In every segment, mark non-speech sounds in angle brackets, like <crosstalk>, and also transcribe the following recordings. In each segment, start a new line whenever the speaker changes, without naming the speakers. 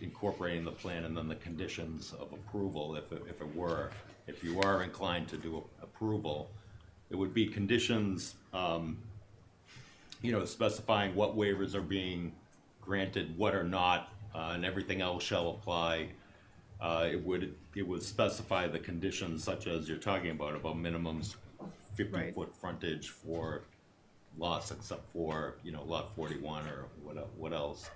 incorporating the plan and then the conditions of approval, if, it- if it were, if you are inclined to do a- approval, it would be conditions, um, you know, specifying what waivers are being granted, what are not, uh, and everything else shall apply. Uh, it would, it would specify the conditions such as you're talking about, about minimums
Right.
fifty-foot frontage for lots except for, you know, lot forty-one or what, el- what else.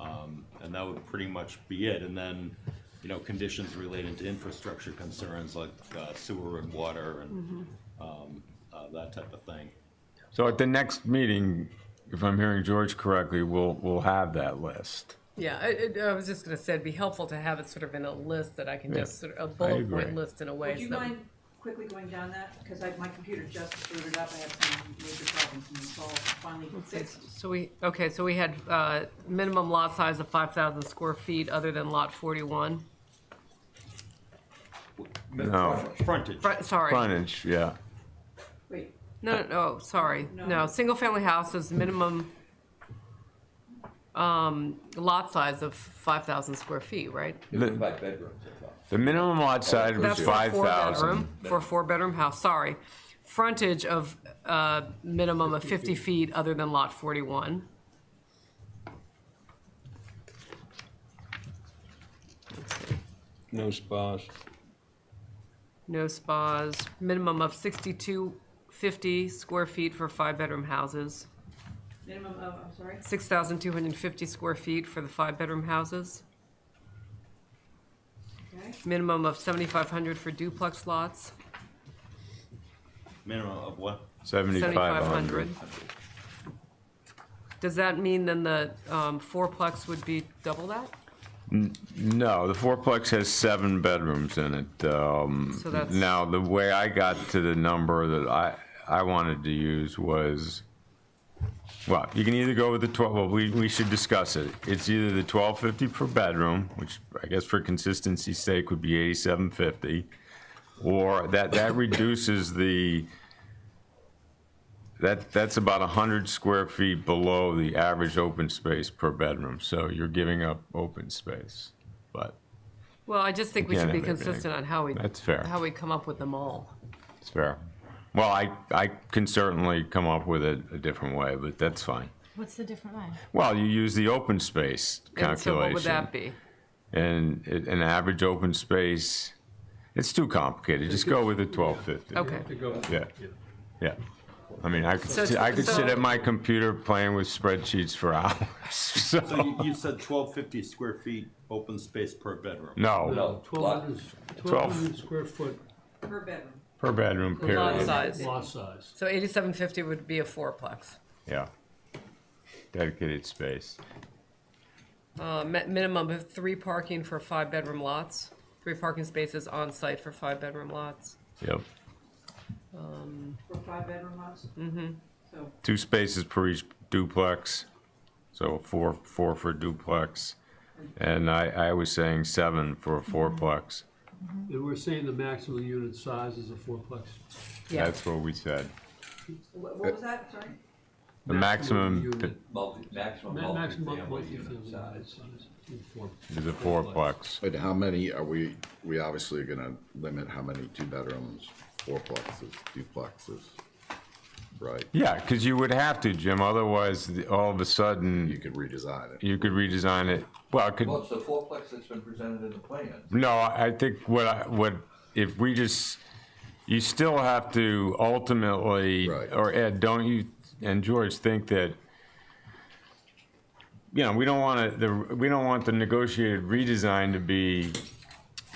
Um, and that would pretty much be it, and then, you know, conditions related to infrastructure concerns like uh, sewer and water and, um, uh, that type of thing.
So at the next meeting, if I'm hearing George correctly, we'll, we'll have that list.
Yeah, I, I- I was just gonna say, it'd be helpful to have it sort of in a list that I can
Yeah,
just sort of, a bullet
agree.
point list in a way.
Would you
so-
mind quickly going down that? Because I, my computer just booted up, I had some major problems and it's all finally fixed.
So we, okay, so we had, uh, minimum lot size of five thousand square feet other than lot forty-one.
No.
Frontage,
Fr- Sorry.
Frontage, yeah.
Wait,
No, no, no, sorry,
No.
no, single-family houses, minimum, um, lot size of five thousand square feet, right?
The,
By bedrooms, I thought.
the minimum lot size was
That's for a
five thousand.
four-bedroom, for a four-bedroom house, sorry. Frontage of, uh, minimum of fifty feet other than lot forty-one.
No spas.
No spas, minimum of sixty-two fifty square feet for five-bedroom houses,
minimum of, I'm sorry,
six thousand two hundred and fifty square feet for the five-bedroom houses,
okay,
minimum of seventy-five hundred for duplex lots,
minimum of what?
Seventy-five
seventy-five
hundred.
hundred. Does that mean then the, um, fourplex would be double that?
No, the fourplex has seven bedrooms in it. Um,
So that's-
now, the way I got to the number that I, I wanted to use was, well, you can either go with the 12, well, we, we should discuss it. It's either the 1250 per bedroom, which I guess for consistency's sake would be 8750, or that,
<laughs>
that reduces the, that, that's about 100 square feet below the average open space per bedroom, so you're giving up open space. But
Well, I just think we
Yeah,
should be
that may be-
consistent on how we,
that's fair.
how we come up with them all.
It's fair. Well, I, I can certainly come up with it a different way, but that's fine.
What's the different line?
Well, you use the open space
And so what would that
calculation.
be?
And it- an average open space, it's too complicated. Just go with the twelve fifty.
Okay,
Yeah, yeah. I mean, I could,
So
sit- I could sit
so-
at my computer playing with spreadsheets for <laughs> hours,
So
so,
you, you said twelve fifty square feet open space per bedroom.
no,
No,
Twelve
lot,
hundred
Twelve.
square foot
per bedroom.
per bedroom
lot
period.
size.
lot size.
So eighty-seven fifty would be a fourplex.
Yeah. Dedicated space.
A Uh, mi- minimum of three parking for five-bedroom lots, three parking spaces on-site for five-bedroom lots.
Yep.
For five bedroom house? Mm-hmm. So,
two spaces per each duplex, so four, four for duplex. And I, I was saying seven for a fourplex.
And we're saying the maximum unit size is a fourplex.
Yeah,
That's what we said.
what, what was that, sorry?
The maximum
unit-
multi, maximum
ma- Maximum
multifamily unit
multifamily
size.
size is four.
is a fourplex.
But how many are we, we obviously are gonna limit how many two bedrooms, fourplexes, duplexes, right?
Yeah, because you would have to, Jim, otherwise the- all of a
You
sudden,
could redesign it.
you could redesign it. Well, it could,
Well, it's the fourplex that's been presented in the plan.
No, I I think what I, what, if we just, you still have to ultimately,
Right.
or Ed, don't you, and George, think that, you know, we don't want to, the, we don't want the negotiated redesign to be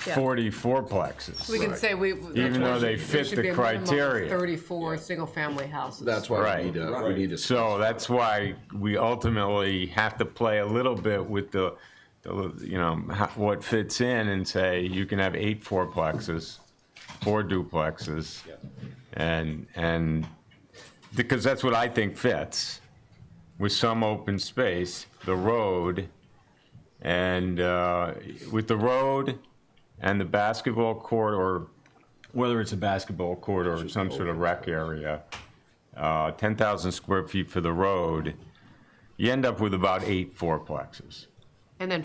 Yeah.
forty-four plexes.
we can say we.
Even though they fit the criteria.
Thirty-four single-family houses.
That's why
Right.
we need to, we need to.
So that's why we ultimately have to play a little bit with the, the, you know, how- what fits in and say, you can have eight fourplexes, four duplexes. And, and, because that's what I think fits, with some open space, the road, and, uh, with the road and the basketball court, or whether it's a basketball court or some sort of rec area, uh, ten thousand square feet for the road, you end up with about eight fourplexes.
And then